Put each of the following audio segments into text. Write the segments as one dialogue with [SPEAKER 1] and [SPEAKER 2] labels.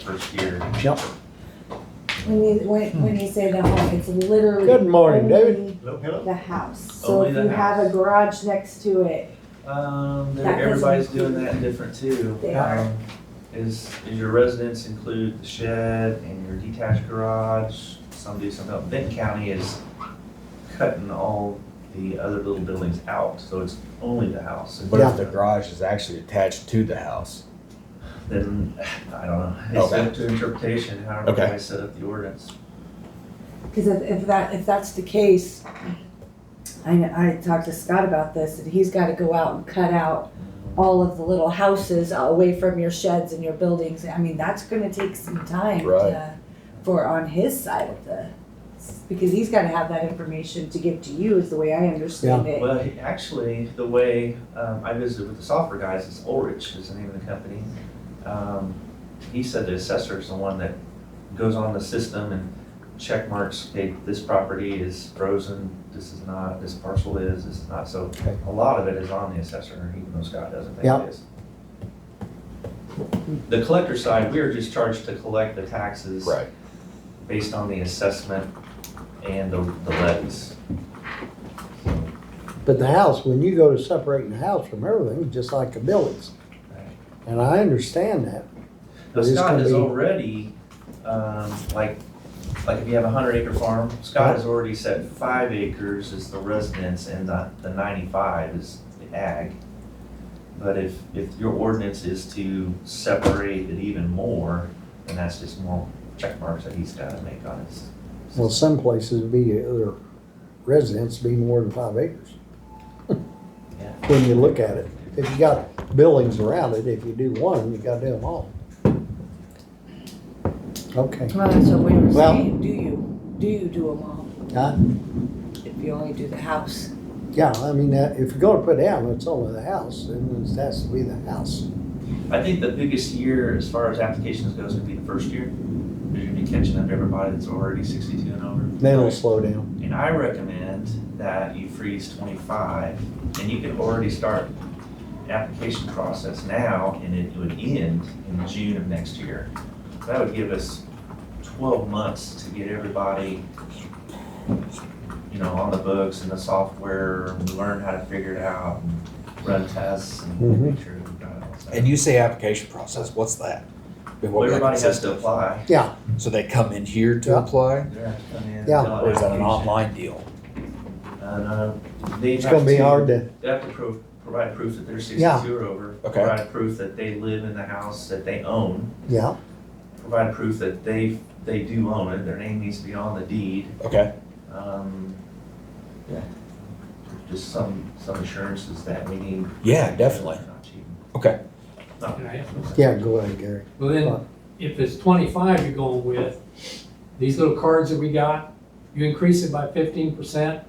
[SPEAKER 1] first year.
[SPEAKER 2] Yep.
[SPEAKER 3] When you, when, when you say the home, it's literally.
[SPEAKER 2] Hmm. Good morning, David.
[SPEAKER 3] only
[SPEAKER 1] Hello, hello.
[SPEAKER 3] The house, so
[SPEAKER 1] Only
[SPEAKER 3] if
[SPEAKER 1] the
[SPEAKER 3] you have a
[SPEAKER 1] house.
[SPEAKER 3] garage next to it,
[SPEAKER 1] Um, there-
[SPEAKER 3] That doesn't
[SPEAKER 1] everybody's
[SPEAKER 3] include-
[SPEAKER 1] doing that different too.
[SPEAKER 3] They are.
[SPEAKER 1] Um, Is, is your residents include the shed and your detached garage? Some do, some don't. Benton County is cutting all the other little buildings out, so it's only the house.
[SPEAKER 4] But if the garage is actually attached to the house,
[SPEAKER 1] Then, I don't know. It's
[SPEAKER 4] Okay.
[SPEAKER 1] up to interpretation, however
[SPEAKER 4] Okay.
[SPEAKER 1] I set up the ordinance.
[SPEAKER 3] cause if, if that, if that's the case, I, I talked to Scott about this, and he's gotta go out and cut out all of the little houses away from your sheds and your buildings, I mean, that's gonna take some time
[SPEAKER 4] Right.
[SPEAKER 3] to, for on his side of the, because he's gotta have that information to give to you, is the way I understand it.
[SPEAKER 1] Well, he- actually, the way um, I visited with the software guys, it's Ulrich is the name of the company. Um, he said the assessor is the one that goes on the system and check marks, hey, this property is frozen, this is not, this parcel is, this is not. So
[SPEAKER 2] Okay.
[SPEAKER 1] a lot of it is on the assessor, even though Scott doesn't think
[SPEAKER 2] Yeah.
[SPEAKER 1] it is. The collector side, we are just charged to collect the taxes
[SPEAKER 4] right?
[SPEAKER 1] based on the assessment and the the levies.
[SPEAKER 2] But the house, when you go to separating the house from everything, it's just like the buildings.
[SPEAKER 1] Right.
[SPEAKER 2] And I understand that.
[SPEAKER 1] Now,
[SPEAKER 2] But it's
[SPEAKER 1] Scott
[SPEAKER 2] gonna
[SPEAKER 1] is
[SPEAKER 2] be-
[SPEAKER 1] already, um, like, like if you have a hundred acre farm, Scott
[SPEAKER 2] Yeah.
[SPEAKER 1] has already set five acres as the residence and the, the ninety-five is the ag. But if, if your ordinance is to separate it even more, then that's just more check marks that he's gotta make on his.
[SPEAKER 2] Well, some places would be, uh, other residents be more than five acres.
[SPEAKER 1] Yeah.
[SPEAKER 2] When you look at it, if you got buildings around it, if you do one, you gotta do them all. Okay.
[SPEAKER 3] Well, that's what we were
[SPEAKER 2] Well-
[SPEAKER 3] saying, do you, do you do them all,
[SPEAKER 2] Uh,
[SPEAKER 3] if you only do the house?
[SPEAKER 2] Yeah, I mean, uh, if you're gonna put down, it's only the house, and it has to be the house.
[SPEAKER 1] I think the biggest year as far as applications goes would be the first year. You're gonna be catching up everybody that's already sixty-two and over.
[SPEAKER 2] Then it'll slow down.
[SPEAKER 1] And I recommend that you freeze twenty-five, and you can already start the application process now, and it would end in June of next year. That would give us twelve months to get everybody, you know, on the books and the software, and learn how to figure it out, and run tests, and
[SPEAKER 2] Mm-hmm.
[SPEAKER 1] make sure we've got it all set.
[SPEAKER 4] And you say application process, what's that? Been
[SPEAKER 1] Well,
[SPEAKER 4] what we have
[SPEAKER 1] everybody has to
[SPEAKER 4] consistent.
[SPEAKER 1] apply.
[SPEAKER 2] Yeah,
[SPEAKER 4] So they come in here to
[SPEAKER 2] Yeah.
[SPEAKER 4] apply,
[SPEAKER 1] They have to come in and
[SPEAKER 2] Yeah.
[SPEAKER 1] fill out
[SPEAKER 4] or is that an
[SPEAKER 1] application.
[SPEAKER 4] online deal?
[SPEAKER 1] Uh, no, they
[SPEAKER 2] it's
[SPEAKER 1] have
[SPEAKER 2] gonna be
[SPEAKER 1] to-
[SPEAKER 2] hard to,
[SPEAKER 1] They have to pro- provide proof that they're
[SPEAKER 2] Yeah.
[SPEAKER 1] sixty-two or over.
[SPEAKER 4] Okay.
[SPEAKER 1] Provide proof that they live in the house that they own.
[SPEAKER 2] yeah,
[SPEAKER 1] Provide proof that they, they do own it, their name needs to be on the deed.
[SPEAKER 4] Okay,
[SPEAKER 1] Um, yeah. Just some, some assurances that we need.
[SPEAKER 4] yeah, definitely.
[SPEAKER 1] Not cheating.
[SPEAKER 4] Okay.
[SPEAKER 1] Not-
[SPEAKER 5] Can I ask
[SPEAKER 2] yeah, go ahead, Gary.
[SPEAKER 5] Well, then, if it's twenty-five you're going with, these little cards that we got, you increase it by fifteen percent.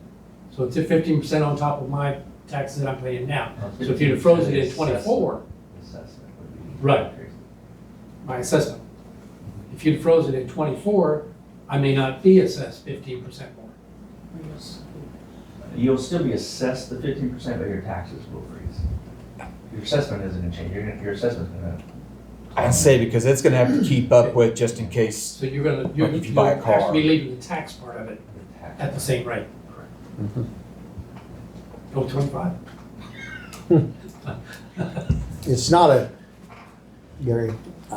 [SPEAKER 5] So it's a fifteen percent on top of my taxes that I'm paying now. So if you'd have frozen it at twenty-four,
[SPEAKER 1] Assessment would be.
[SPEAKER 5] Right. my assessment. If you'd have frozen it at twenty-four, I may not be assessed fifteen percent more.
[SPEAKER 1] You'll still be assessed the fifteen percent, but your taxes will freeze. Your assessment isn't gonna change, your, your assessment's gonna.
[SPEAKER 4] I say because it's gonna have to keep up with just in case,
[SPEAKER 5] So you're gonna, you're,
[SPEAKER 4] Like if you buy a
[SPEAKER 5] you'll actually
[SPEAKER 4] car.
[SPEAKER 5] be leaving the tax part of it at the same rate.
[SPEAKER 2] Mm-hmm.
[SPEAKER 5] Go twenty-five.
[SPEAKER 2] It's not a, Gary, I,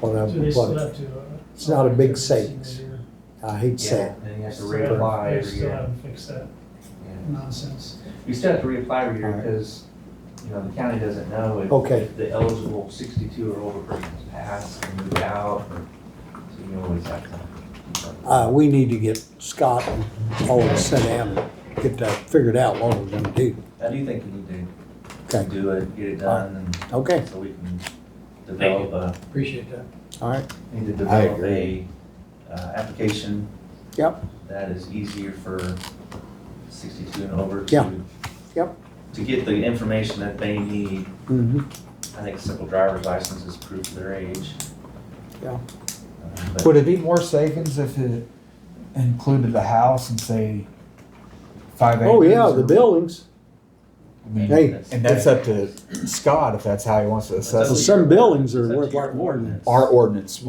[SPEAKER 2] what I,
[SPEAKER 6] So they still
[SPEAKER 2] what,
[SPEAKER 6] have to. uh,
[SPEAKER 2] It's not a big
[SPEAKER 6] fix it in
[SPEAKER 2] savings.
[SPEAKER 6] a year.
[SPEAKER 2] I hate to say
[SPEAKER 1] Yeah,
[SPEAKER 2] it.
[SPEAKER 1] and you have to
[SPEAKER 6] Still have-
[SPEAKER 1] reapply
[SPEAKER 6] They
[SPEAKER 1] every
[SPEAKER 6] still
[SPEAKER 1] year.
[SPEAKER 6] have to fix that
[SPEAKER 1] Yeah.
[SPEAKER 6] nonsense.
[SPEAKER 1] You still have to reapply every year
[SPEAKER 2] Alright.
[SPEAKER 1] because, you know, the county doesn't know if.
[SPEAKER 2] Okay.
[SPEAKER 1] if The eligible sixty-two or older person's passed and moved out, or, so you always have to. keep up with
[SPEAKER 2] Uh, we need to get Scott and all of us sent out and get that figured out what we're gonna do.
[SPEAKER 1] it. I do think you need to
[SPEAKER 2] Okay,
[SPEAKER 1] do it, get it done,
[SPEAKER 2] okay,
[SPEAKER 1] and so we can develop a,
[SPEAKER 5] Appreciate that.
[SPEAKER 2] all right,
[SPEAKER 1] need to
[SPEAKER 4] I
[SPEAKER 1] develop a,
[SPEAKER 4] agree.
[SPEAKER 1] uh, application.
[SPEAKER 2] Yep.
[SPEAKER 1] That is easier for sixty-two and over to.
[SPEAKER 2] Yeah. Yep.
[SPEAKER 1] To get the information that they need.
[SPEAKER 2] hmm
[SPEAKER 1] I think a simple driver's license is proof of their age.
[SPEAKER 2] Yeah.
[SPEAKER 1] Uh, but-
[SPEAKER 7] Would it be more savings if it included the house and say five acres?
[SPEAKER 2] Oh, yeah,
[SPEAKER 7] or-
[SPEAKER 2] the buildings.
[SPEAKER 7] I mean,
[SPEAKER 2] Hey,
[SPEAKER 1] That's-
[SPEAKER 4] and
[SPEAKER 7] That's
[SPEAKER 4] that's
[SPEAKER 7] up to Scott if that's how he wants to assess
[SPEAKER 1] That's
[SPEAKER 7] it.
[SPEAKER 1] up
[SPEAKER 2] Some buildings are
[SPEAKER 1] It's up to
[SPEAKER 2] worth
[SPEAKER 1] your
[SPEAKER 2] like
[SPEAKER 1] ordinance.
[SPEAKER 4] our ordinance